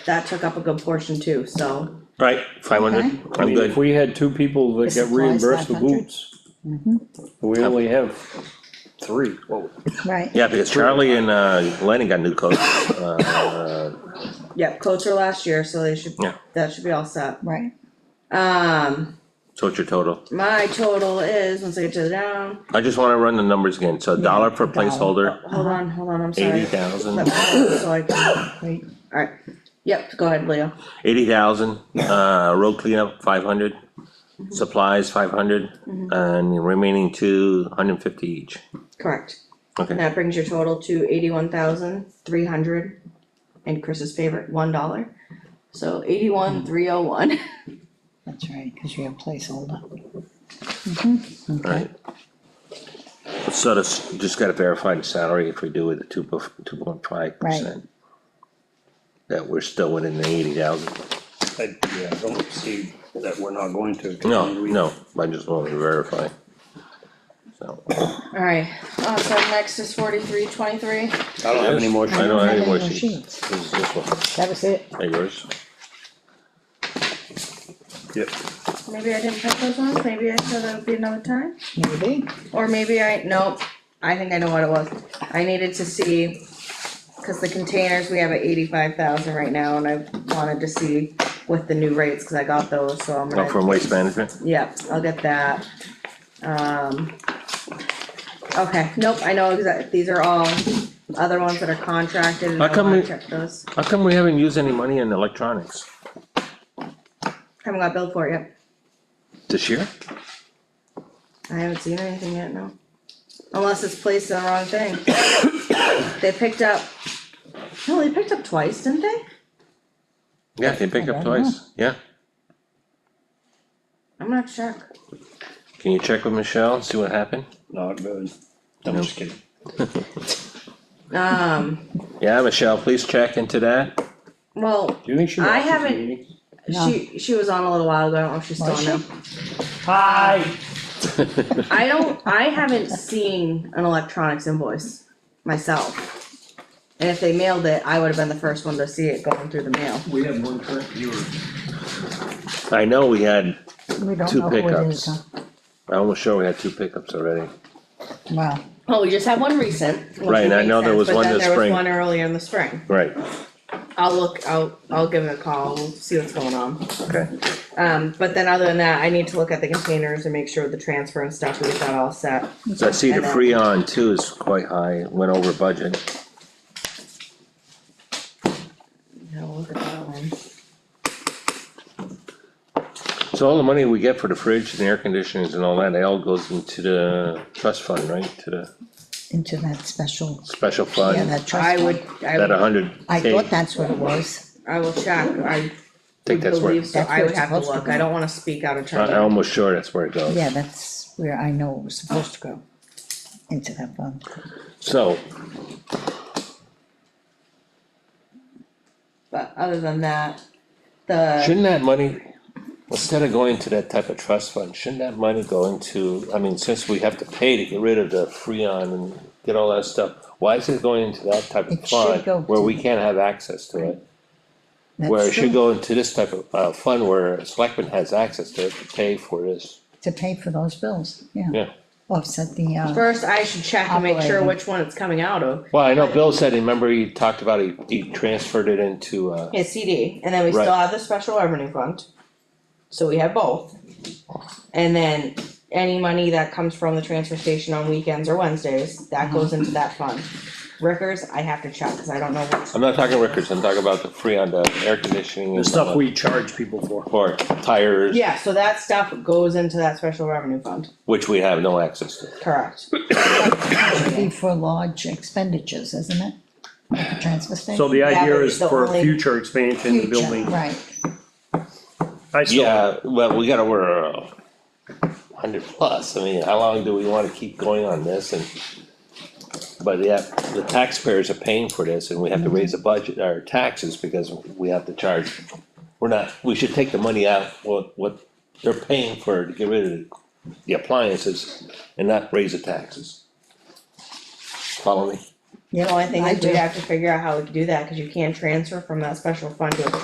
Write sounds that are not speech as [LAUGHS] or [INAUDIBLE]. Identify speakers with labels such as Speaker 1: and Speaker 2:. Speaker 1: that took up a good portion too, so.
Speaker 2: Right, five hundred,
Speaker 3: Okay.
Speaker 4: I
Speaker 2: I'm
Speaker 4: mean, if
Speaker 2: good,
Speaker 4: we had two people that
Speaker 3: This
Speaker 4: get
Speaker 3: applies
Speaker 4: reimbursed for
Speaker 3: 500?
Speaker 4: boots. We only have three, whoa,
Speaker 3: right?
Speaker 2: yeah, because Charlie and, uh, Lenny got new coats, uh,
Speaker 1: Yep, coats were last year, so they should,
Speaker 2: Yeah.
Speaker 1: that should be all set.
Speaker 3: Right,
Speaker 1: Um,
Speaker 2: so what's your total?
Speaker 1: my total is, once I get to the down,
Speaker 2: I just wanna run the numbers again, so dollar per
Speaker 3: dollar.
Speaker 2: placeholder,
Speaker 1: hold on, hold on, I'm
Speaker 2: eighty
Speaker 1: sorry. Let me-
Speaker 2: thousand,
Speaker 1: So I can,
Speaker 3: wait,
Speaker 1: alright, yep, go ahead, Leo.
Speaker 2: eighty thousand, uh, road cleanup, five hundred. Supplies, five hundred,
Speaker 3: Mm-hmm.
Speaker 2: and the remaining two, hundred fifty each,
Speaker 1: Correct.
Speaker 2: okay.
Speaker 1: And that brings your total to eighty-one thousand, three hundred, and Chris's favorite, one dollar. So eighty-one, three oh one. [LAUGHS]
Speaker 3: that's right, cause you have placeholder.
Speaker 2: Right. So this, just gotta verify the salary if we do with the two, two point five percent. That we're still within the eighty thousand.
Speaker 4: I, yeah, I don't see that we're not going to.
Speaker 2: No, no, I just wanted to verify. So,
Speaker 1: Alright, uh, so next is forty-three, twenty-three.
Speaker 4: I don't have any more.
Speaker 2: I don't have any more
Speaker 3: no
Speaker 2: sheets.
Speaker 3: sheets.
Speaker 2: This is this one,
Speaker 3: That was it,
Speaker 2: Hey, yours?
Speaker 4: Yep,
Speaker 1: Maybe I didn't put those on, maybe I said that would be another time,
Speaker 3: maybe,
Speaker 1: or maybe I, nope, I think I know what it was. I needed to see, cause the containers, we have at eighty-five thousand right now, and I wanted to see with the new rates, cause I got those, so I'm
Speaker 2: Oh,
Speaker 1: gonna,
Speaker 2: from waste management?
Speaker 1: yep, I'll get that. Um. Okay, nope, I know exact, these are all other ones that are contracted, and
Speaker 2: How
Speaker 1: I
Speaker 2: come
Speaker 1: wanna
Speaker 2: we-
Speaker 1: check those,
Speaker 2: How come we haven't used any money in electronics
Speaker 1: haven't got billed for it yet,
Speaker 2: this year?
Speaker 1: I haven't seen anything yet, no. Unless it's placed in the wrong thing. [COUGHS] They picked up, no, they picked up twice, didn't they?
Speaker 2: Yeah, they pick up
Speaker 3: I don't know.
Speaker 2: twice, yeah.
Speaker 1: I'm gonna check.
Speaker 2: Can you check with Michelle, and see what happened?
Speaker 4: not good, I'm just kidding.
Speaker 1: Um,
Speaker 2: Yeah, Michelle, please check into that.
Speaker 1: well,
Speaker 4: Do you think she
Speaker 1: I
Speaker 4: watches the
Speaker 1: haven't-
Speaker 4: meetings?
Speaker 3: No.
Speaker 1: she, she was on a little while ago, I don't know if she's still
Speaker 3: Was
Speaker 1: on now.
Speaker 4: Hi.
Speaker 1: I don't, I haven't seen an electronics invoice myself. And if they mailed it, I would have been the first one to see it going through the mail.
Speaker 5: We have one current viewer.
Speaker 2: [LAUGHS] I know we had,
Speaker 3: we don't
Speaker 2: Two
Speaker 3: know who it
Speaker 2: pickups.
Speaker 3: is, huh?
Speaker 2: I'm almost sure we had two pickups already.
Speaker 3: Wow,
Speaker 1: Well, we just had one recent. which
Speaker 2: Right, and I
Speaker 1: makes
Speaker 2: know there
Speaker 1: sense,
Speaker 2: was
Speaker 1: but
Speaker 2: one
Speaker 1: then
Speaker 2: this
Speaker 1: there was
Speaker 2: spring.
Speaker 1: One earlier in the spring.
Speaker 2: Right,
Speaker 1: I'll look, I'll, I'll give it a call, we'll see what's going on.
Speaker 2: okay.
Speaker 1: Um, but then other than that, I need to look at the containers and make sure the transfer and stuff, we get that all set.
Speaker 2: So I see the
Speaker 1: And then-
Speaker 2: Freon too is quite high, went over budget.
Speaker 1: Yeah, we'll look at that one.
Speaker 2: So all the money we get for the fridge and air conditioners and all that, it all goes into the trust fund, right? To the
Speaker 3: into that special,
Speaker 2: special
Speaker 3: yeah,
Speaker 2: fund,
Speaker 3: that
Speaker 1: I
Speaker 3: trust
Speaker 1: would,
Speaker 3: fund,
Speaker 1: I
Speaker 2: that
Speaker 1: would,
Speaker 2: a hundred
Speaker 3: I
Speaker 2: K,
Speaker 3: thought that's what it was,
Speaker 1: I will check, I
Speaker 2: think that's where,
Speaker 1: believe so,
Speaker 3: That's
Speaker 1: I
Speaker 3: where
Speaker 1: would
Speaker 3: it's
Speaker 1: have to
Speaker 3: supposed to
Speaker 1: look, I
Speaker 3: go.
Speaker 1: don't wanna speak out of turn.
Speaker 2: I- I'm almost sure that's where it goes.
Speaker 3: yeah, that's where I know it was supposed to go, into that fund.
Speaker 2: So,
Speaker 1: But other than that, the,
Speaker 2: shouldn't that money, instead of going to that type of trust fund, shouldn't that money go into, I mean, since we have to pay to get rid of the Freon and get all that stuff, why is it going into that type of
Speaker 3: It should
Speaker 2: fund
Speaker 3: go
Speaker 2: where
Speaker 3: to-
Speaker 2: we can't have access to it?
Speaker 3: That's
Speaker 2: Where it should
Speaker 3: true,
Speaker 2: go into this type of, uh, fund where selectmen has access to it to pay for this,
Speaker 3: To pay for those bills, yeah,
Speaker 2: yeah.
Speaker 3: offset the, uh,
Speaker 1: first I should check and make sure
Speaker 3: Operating.
Speaker 1: which one it's coming out of,
Speaker 2: Well, I know Bill said, remember he talked about he, he transferred it into, uh,
Speaker 1: his CD, and then we still
Speaker 2: Right.
Speaker 1: have the special revenue fund. So we have both. And then any money that comes from the transfer station on weekends or Wednesdays, that goes into that fund. Rickers, I have to check, cause I don't know which
Speaker 2: I'm not talking records, I'm talking about the free on the air conditioning
Speaker 4: The
Speaker 2: and
Speaker 4: stuff we charge people for.
Speaker 2: Or tires,
Speaker 1: Yeah, so that stuff goes into that special revenue fund,
Speaker 2: which we have no access to.
Speaker 1: correct.
Speaker 3: be for large expenditures, isn't it? At the transfer station.
Speaker 4: So the
Speaker 1: Yeah,
Speaker 4: idea
Speaker 1: but
Speaker 4: is
Speaker 1: the
Speaker 4: for
Speaker 1: only-
Speaker 4: future expansion of the
Speaker 3: Future,
Speaker 4: building.
Speaker 3: Right,
Speaker 4: I still,
Speaker 2: Yeah, well, we gotta, we're uh, hundred plus, I mean, how long do we wanna keep going on this and? But yeah, the taxpayers are paying for this and we have to raise the budget, our taxes, because we have to charge. We're not, we should take the money out, what, what they're paying for to get rid of the appliances and not raise the taxes. Follow me?
Speaker 1: The only thing
Speaker 3: I
Speaker 1: is we
Speaker 3: do.
Speaker 1: have to figure out how we can do that, cause you can transfer from that special fund to a